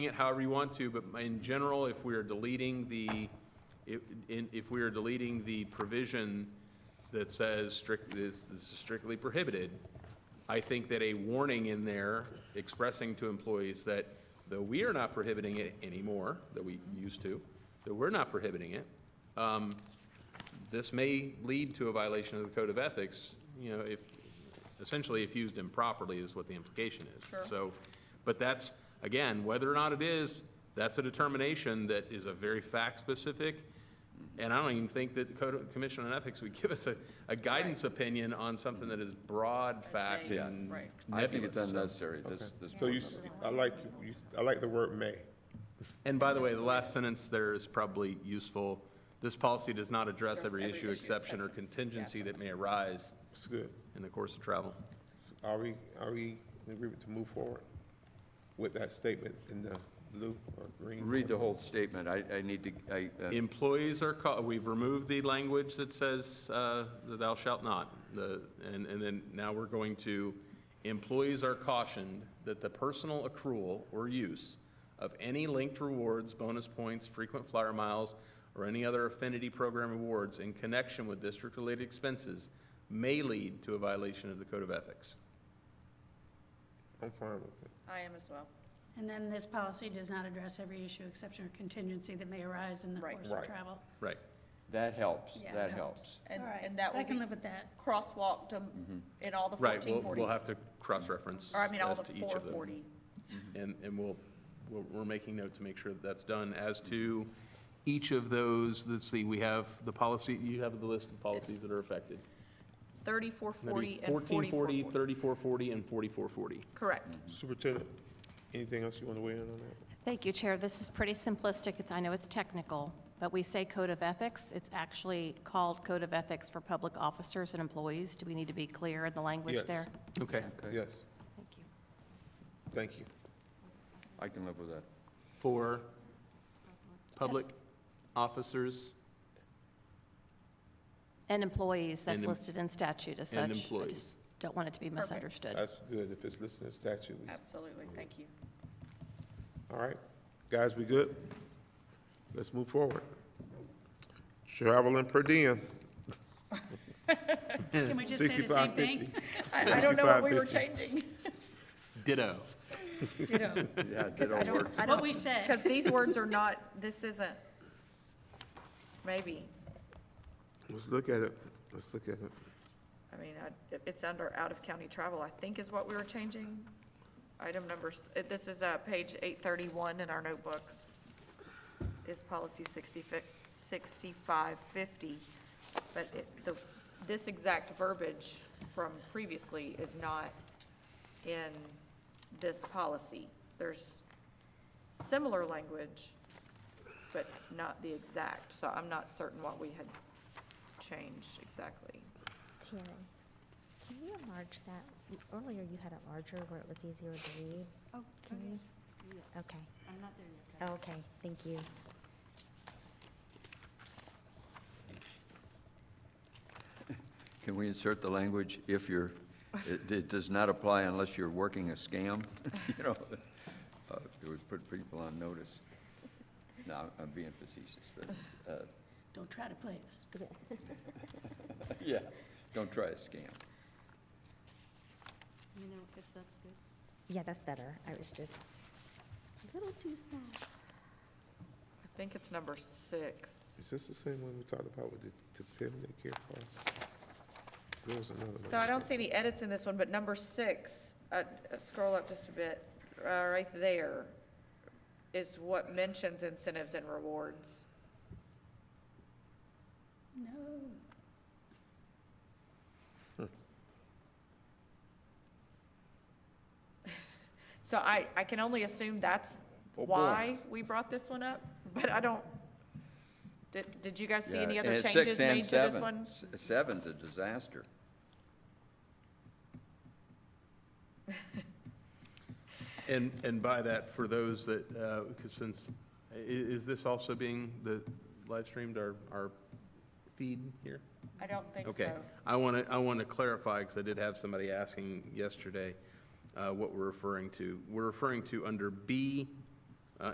it however you want to, but in general, if we are deleting the, if, in- if we are deleting the provision that says strict, this this is strictly prohibited, I think that a warning in there expressing to employees that though we are not prohibiting it anymore, that we used to, that we're not prohibiting it, um, this may lead to a violation of the code of ethics, you know, if, essentially if used improperly is what the implication is. Sure. So, but that's, again, whether or not it is, that's a determination that is a very fact-specific, and I don't even think that the Code of- Commission on Ethics would give us a, a guidance opinion on something that is broad fact vague, and right. nebulous. I think it's unnecessary, this, this. So you, s- I like, you- I like the word may. And by the way, the last sentence there is probably useful. This policy does not address every issue, exception, or contingency that may arise It's good. in the course of travel. Are we, are we in agreement to move forward with that statement in the blue or green? Read the whole statement, I, I need to, I, uh, Employees are called, we've removed the language that says, uh, thou shalt not, the, and, and then now we're going to, employees are cautioned that the personal accrual or use of any linked rewards, bonus points, frequent flyer miles, or any other affinity program awards in connection with district-related expenses may lead to a violation of the code of ethics. I'm fine with it. I am as well. And then this policy does not address every issue, exception, or contingency that may arise in the Right. course Right. of travel. Right. that helps, Yeah, that it helps. And, All right, and that I will can be live with that. crosswalked um, in all the Mm-hmm. Right, we'll, fourteen forties. we'll have to cross-reference Or I mean, all as the to each four of them. forty. And, and we'll, we're, we're making note to make sure that that's done. As to each of those, let's see, we have the policy, you have the list of policies that are affected. Thirty-four That'd be forty and forty-four 1440, forty. 3440, and 4440. Correct. Mm-hmm. Superintendent, anything else you want to weigh in on that? Thank you, Chair. This is pretty simplistic. It's- I know it's technical, but we say Code of Ethics. It's actually called Code of Ethics for public officers and employees. Do we need to be clear in the language Yes. there? Okay, Yes, Thank you. thank you. I can live with that. for public officers, And employees, that's And em- listed in statute as such. and I employees. just don't want it to be Perfect. misunderstood. That's good. If it's listed in statute, we- Absolutely. Thank you. all right. Guys, we good? Let's move forward. Traveling per diem. Can we just say the same 65, thing? 50. I, I don't know what we were 65.50. changing. ditto. Ditto. Yeah, Cause I that all don't, works. I What don't. we said. Cause these words are not, this isn't, maybe, Let's look at it. Let's look at it. I mean, I- it- it's under out-of-county travel, I think is what we were changing. Item number, s- it- this is uh, page 831 in our notebooks, is policy 60 fi- 6550. But it- the- this exact verbiage from previously is not in this policy. There's similar language, but not the exact, so I'm not certain what we had changed exactly. Tanner, can you enlarge that? You- Earlier you had it larger where it was easier to read. Oh, Can you? Okay. I'm not there yet. Okay, thank you. Can we insert the language if you're, it, it does not apply unless you're working a scam? You know, uh, it would put people on notice. No, I'm- I'm being facetious, but, uh, Don't try to play us. yeah, don't try a scam. You know, if that's good. Yeah, that's better. I was just, A little too small. I think it's number six. Is this the same one we talked about with the, the family care policy? There was another one. So I don't see any edits in this one, but number six, uh, scroll up just a bit, uh, right there is what mentions incentives and rewards. No. So I, I can only assume that's Oh, boy. why we brought this one up, but I don't, did, did you guys see any Yeah, other and six changes and made to this seven. one? S- Seven's a disaster. And, and by that, for those that, uh 'cause cause since, i- is this also being the live streamed, our, our feed here? I don't think Okay, so. I want to, I want to clarify, because I did have somebody asking yesterday uh, what we're referring to. We're referring to under B